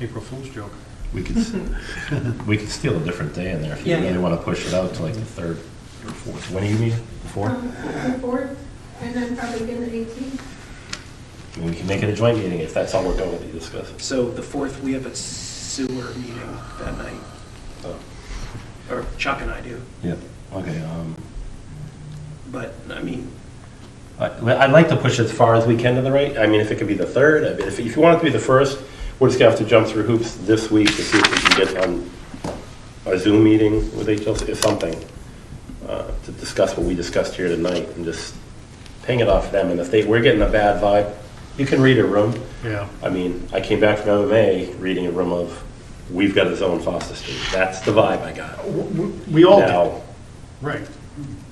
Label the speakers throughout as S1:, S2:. S1: April Fool's joke.
S2: We could, s- we could steal a different day in there if you
S3: Yeah.
S2: really want to push it out to like the third or fourth. When are you meeting? The Fourth?
S4: Um, The board, and then probably again the 18th.
S2: We can make it a joint meeting if that's all we're going to discuss.
S3: So the fourth, we have a sewer meeting that night,
S2: Oh,
S3: or Chuck and I do.
S2: Yeah, okay. um,
S3: But, I mean,
S2: I- well, I'd like to push as far as we can to the right. I mean, if it could be the third, I mean, if if you want it to be the first, we're just gonna have to jump through hoops this week to see if we can get on a Zoom meeting with HLC, if something, uh, to discuss what we discussed here tonight and just ping it off them. And if they, we're getting a bad vibe, you can read a room.
S1: Yeah.
S2: I mean, I came back from MMA reading a room of, we've got a zone Foster Street. That's the vibe I got.
S1: We all did,
S2: Now,
S1: right.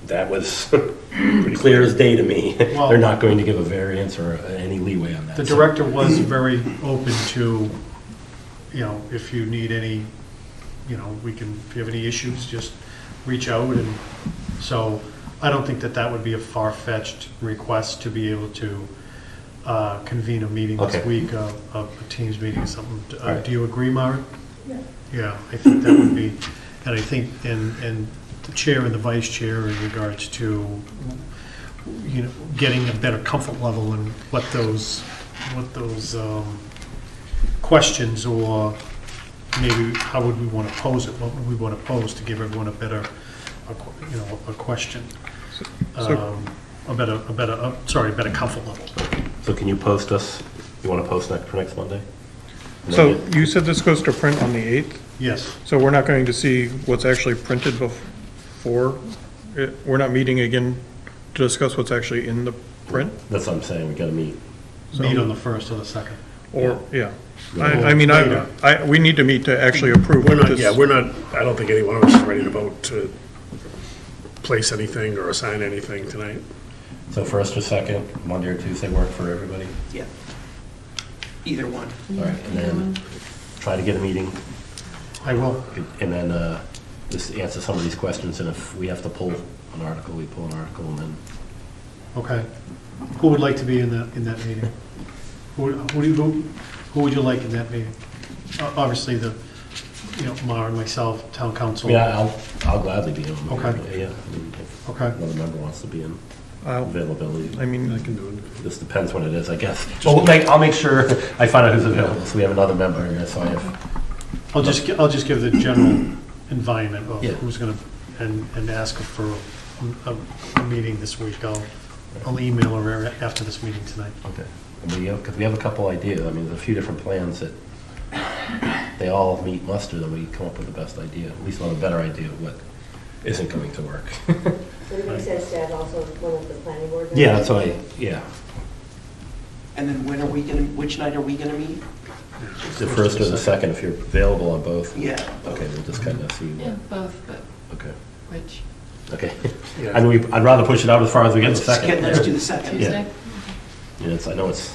S2: that was pretty clear as day to me.
S1: Well-
S2: They're not going to give a variance or any leeway on that.
S1: The
S2: so-
S1: director was very open to, you know, if you need any, you know, we can, if you have any issues, just reach out and, so I don't think that that would be a far-fetched request to be able to uh, convene a meeting this
S2: Okay.
S1: week, uh, a a Teams meeting or something. Uh,
S2: Alright.
S1: Do you agree, Mara?
S4: Yeah.
S1: Yeah, I think that would be, and I think, and, and the chair and the vice chair in regards to, you know, getting a better comfort level and what those, what those, um, questions or maybe how would we want to pose it, what would we want to pose to give everyone a better, a qu- you know, a question? Um, A better, a better, uh, sorry, a better comfort level.
S2: So can you post us, you want to post next, for next Monday? And
S5: So
S2: then
S5: you said this goes to print on the 8th,
S1: Yes,
S5: so we're not going to see what's actually printed before? it- We're not meeting again to discuss what's actually in the print?
S2: That's what I'm saying, we gotta meet.
S1: meet on the first or the second.
S5: Or, yeah. I, I mean, I, I, we need to meet to actually approve
S6: We're not,
S5: this.
S6: yeah, we're not, I don't think any one of us is ready to vote to place anything or assign anything tonight.
S2: So first or second, Monday or Tuesday work for everybody?
S3: yeah, either one.
S2: All right, and then try to get a meeting,
S1: I will.
S2: and then uh, just answer some of these questions, and if we have to pull an article, we pull an article, and then
S1: Okay. Who would like to be in that, in that meeting? Who, who do you, who, who would you like in that meeting? O- Obviously, the, you know, Mar and myself, town council.
S2: Yeah, I'll, I'll gladly be on.
S1: Okay.
S2: Yeah, I mean, if
S1: Okay.
S2: another member wants to be in,
S5: I'll-
S2: availability,
S5: I mean,
S2: just depends what it is, I guess. But we'll make, I'll make sure I find out who's available, so we have another member here, so I have,
S1: I'll just, gi- I'll just give the general environment of
S2: Yeah.
S1: who's gonna, and, and ask for a- a, a meeting this week. I'll, I'll email her after this meeting tonight.
S2: okay. Because we have a couple ideas, I mean, there's a few different plans that they all meet muster, then we come up with the best idea, at least we'll have a better idea of what isn't going to work.
S7: So it makes sense to have also one of the planning board. members.
S2: Yeah, that's what I, yeah,
S3: And then when are we gonna, which night are we gonna meet?
S2: the first or the second, if you're available on both.
S3: Yeah.
S2: Okay, we'll just kind of see, what-
S8: Yeah, both, but
S2: okay,
S8: which,
S2: okay.
S6: Yeah.
S2: I mean, we- I'd rather push it out as far as we get the
S3: Let's just
S2: second.
S3: get- Let's do the second.
S8: Tuesday?
S2: Yeah, it's, I know it's,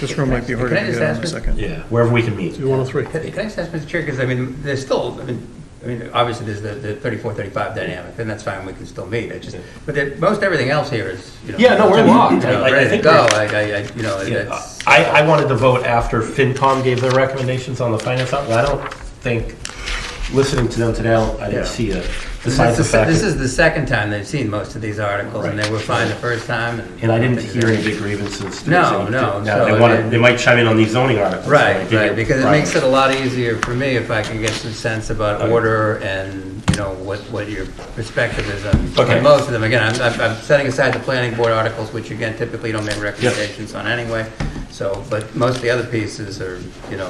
S5: this room might be harder
S9: Can I
S5: to
S9: just
S5: get on
S9: ask
S5: in a
S9: with-
S5: second.
S2: yeah, wherever we can meet.
S6: Do one oh three.
S9: Can can I just ask, Mr. Chair, because I mean, there's still, I mean, I mean, obviously, there's the, the thirty-four, thirty-five dynamic, and that's fine, we can still meet, it just, but there- most everything else here is, you know.
S2: Yeah, no, we're
S9: you
S2: locked.
S9: know,
S2: I- I- I
S9: Ready to
S2: think
S9: go,
S2: we're-
S9: I, I, I- you know,
S2: Yeah,
S9: that's,
S2: I, I wanted to vote after FinCom gave their recommendations on the finance outlet. I don't think, listening to them today, I don't- I didn't
S6: Yeah.
S2: see it. Besides
S9: this
S2: the
S9: is, the-
S2: fact,
S9: this
S2: that-
S9: is the second time they've seen most of these articles, and they were fine the first time, and.
S2: and I didn't hear any big grievances. to
S9: No,
S2: say.
S9: no,
S2: Now,
S9: so
S2: they
S9: I
S2: want,
S9: mean-
S2: they might chime in on these zoning articles. so I
S9: Right,
S2: think
S9: right,
S2: it-
S9: because it
S2: right.
S9: makes it a lot easier for me if I can get some sense about
S2: Okay.
S9: order and, you know, what, what your perspective is on,
S2: Okay.
S9: on most of them. Again, I'm, I'm- I'm setting aside the planning board articles, which again typically don't make recommendations on anyway. So, but most of the other pieces are, you know,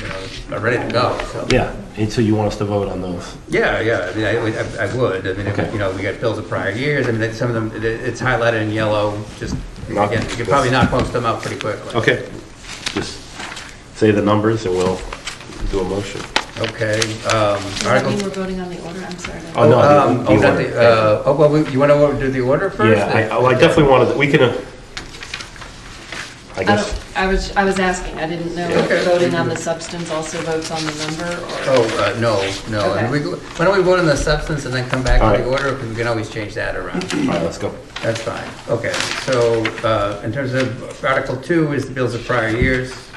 S9: you know, are ready to go, so.
S2: Yeah, and so you want us to vote on those?
S9: Yeah, yeah, I mean, I would- I, I would, I mean,
S2: Okay.
S9: you know, we got bills of prior years, I mean, that- some of them, it- it's highlighted in yellow, just,
S2: Not-
S9: again, you could probably knock most of them out pretty quickly.
S2: Okay. Just say the numbers and we'll do a motion.
S9: Okay, um,
S8: Does that
S9: Article
S8: mean we're voting on the order? I'm sorry. I don't-
S2: Oh, no, the-
S9: Um,
S2: the
S9: oh, not
S2: order.
S9: the, uh, oh, well, we- you wanna do the uh, order first?
S2: Yeah, I, oh, I definitely wanted, we can, uh, I
S8: I
S2: guess.
S8: don't, I was, I was asking, I didn't know
S9: Yeah.
S8: if voting on the substance also votes on the number or?
S9: Oh, uh, no, no, and we, why don't we vote on the substance and then come back to the
S2: Alright.
S9: order, because we can always change that around.
S2: All right, let's go.
S9: That's fine, okay, so, uh, in terms of Article Two is the bills of prior years.